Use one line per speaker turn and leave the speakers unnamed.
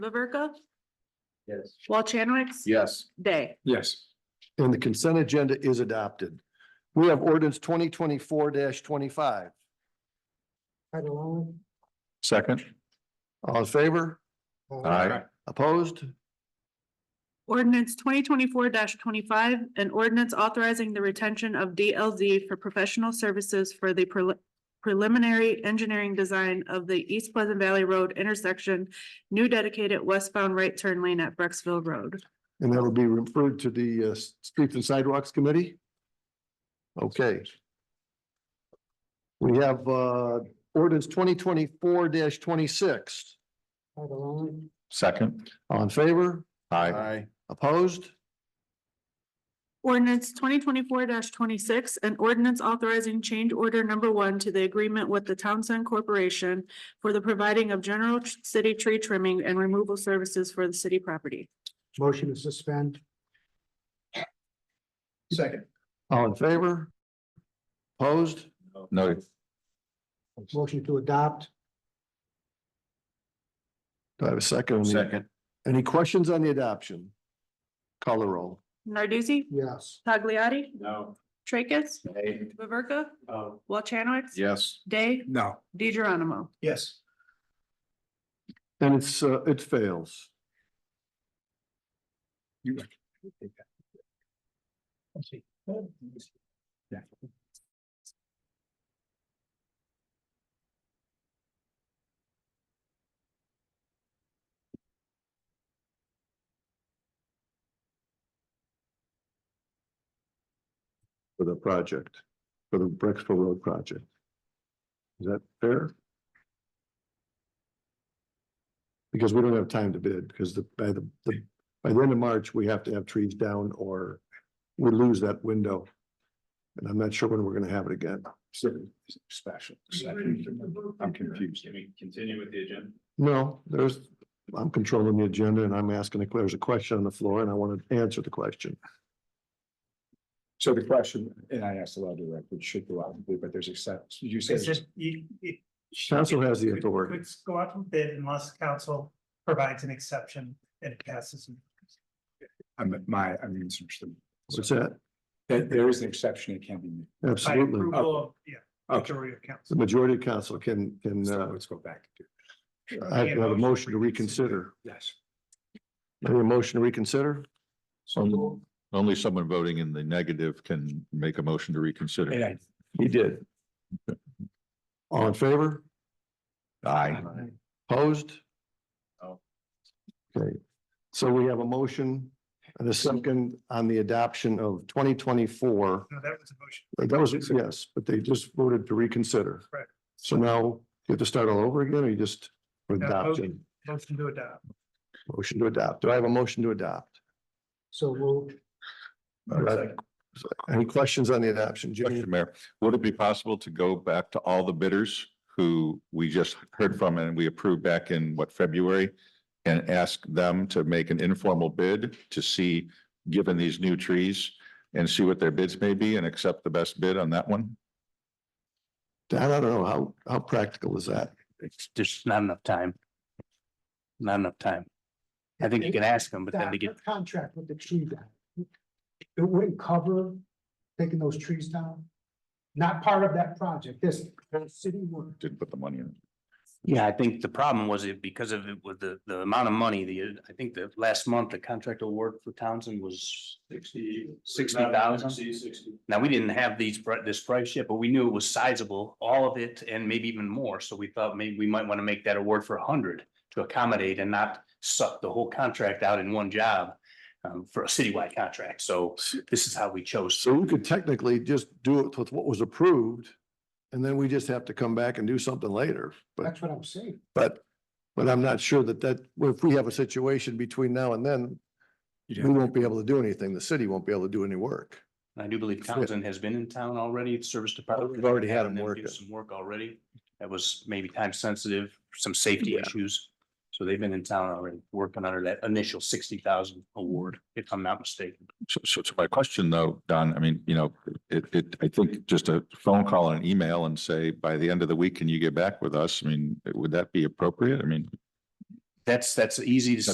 LaVerca,
Yes.
Walchanwicks.
Yes.
Day.
Yes. And the consent agenda is adopted. We have ordinance twenty twenty-four twenty-five.
Title only.
Second.
All in favor?
Aye.
Opposed?
Ordinance twenty twenty-four twenty-five, an ordinance authorizing the retention of DLZ for professional services for the prel- preliminary engineering design of the East Pleasant Valley Road intersection, new dedicated westbound right turn lane at Brecksville Road.
And that'll be referred to the uh, Streets and Sidewalks Committee? Okay. We have uh, ordinance twenty twenty-four twenty-six.
Title only.
Second.
All in favor?
Aye.
Opposed?
Ordinance twenty twenty-four twenty-six, an ordinance authorizing change order number one to the agreement with the Townsend Corporation for the providing of general tr- city tree trimming and removal services for the city property.
Motion to suspend.
Second.
All in favor? Opposed?
Noted.
Motion to adopt.
Do I have a second? on the-
Second.
Any questions on the adoption? Call the roll.
Narduzzi,
Yes.
Pagliari,
No.
Tracus,
Aye.
Laverca,
Oh.
Walchanwicks.
Yes.
Day,
No.
De Geronimo.
Yes.
And it's, uh, it fails. for the project, for the Brexville Road project. Is that fair? Because we don't have time to bid, because the, by the, the- by the end of March, we have to have trees down or we lose that window. And I'm not sure when we're gonna have it again.
Special. I'm confused. Can we continue with the agenda?
No, there's, I'm controlling the agenda and I'm asking, if there's a question on the floor and I want to answer the question.
So the question, and I asked the law director, should go out and bid, but there's exceptions. You said,
It's just, you, it.
Council has the
Could-
authority.
could Go out and bid unless council provides an exception and it passes.
I'm, my, I'm interested.
What's that?
That there is an exception, it can be made.
By
Absolutely.
approval, of, yeah,
Okay,
majority of
The
council.
majority of council can, can,
so
uh,
let's go back. to
I have a motion to reconsider.
Yes.
Any motion to reconsider?
So,
Only someone voting in the negative can make a motion to
and
reconsider.
I,
He did. All in favor?
Aye.
Opposed? Oh.
No.
Okay, so we have a motion and a second on the adoption of twenty twenty-four.
No, that was a motion.
That was, yes, but they just voted to reconsider.
Correct.
So now you have to start all over again, or you just for
No,
adoption,
motion- Uh, Motion to adopt.
motion to adopt. Do I have a motion to adopt?
So moved.
Right. Any questions on the adoption? Jimmy?
Question, Mayor, would it be possible to go back to all the bidders who we just heard from and we approved back in what, February? And ask them to make an informal bid to see, given these new trees, and see what their bids may be and accept the best bid on that one?
Don, I don't know, how, how practical is that?
it's just not enough time. Not enough time. I think you can ask them, but then they get,
Contract with the tree guy. It wouldn't cover taking those trees down. Not part of that project, this, this city work.
Didn't put the money in.
yeah, I think the problem was it because of it with the, the amount of money, the, I think the last month, the contract award for Townsend was. Sixty. Sixty thousand. Now, we didn't have these, pri- this price yet, but we knew it was sizable, all of it and maybe even more. So we thought maybe we might want to make that award for a hundred to accommodate and not suck the whole contract out in one job um, for a citywide contract. So this is how we chose.
So we could technically just do it with what was approved. And then we just have to come back and do something later, but,
That's what I'm saying.
but, but I'm not sure that that, if we have a situation between now and then,
you'd
we
have-
won't be able to do anything. The city won't be able to do any work.
I do believe
Fit.
Townsend has been in town already, the service department.
We've already had him
them
work
do
it.
Some work already. That was maybe time sensitive, some safety issues. So they've been in town already, working under that initial sixty thousand award, if I'm not mistaken.
So, so so my question though, Don, I mean, you know, it, it, I think just a phone call and an email and say, by the end of the week, can you get back with us? I mean, would that be appropriate? I mean,
That's, that's easy to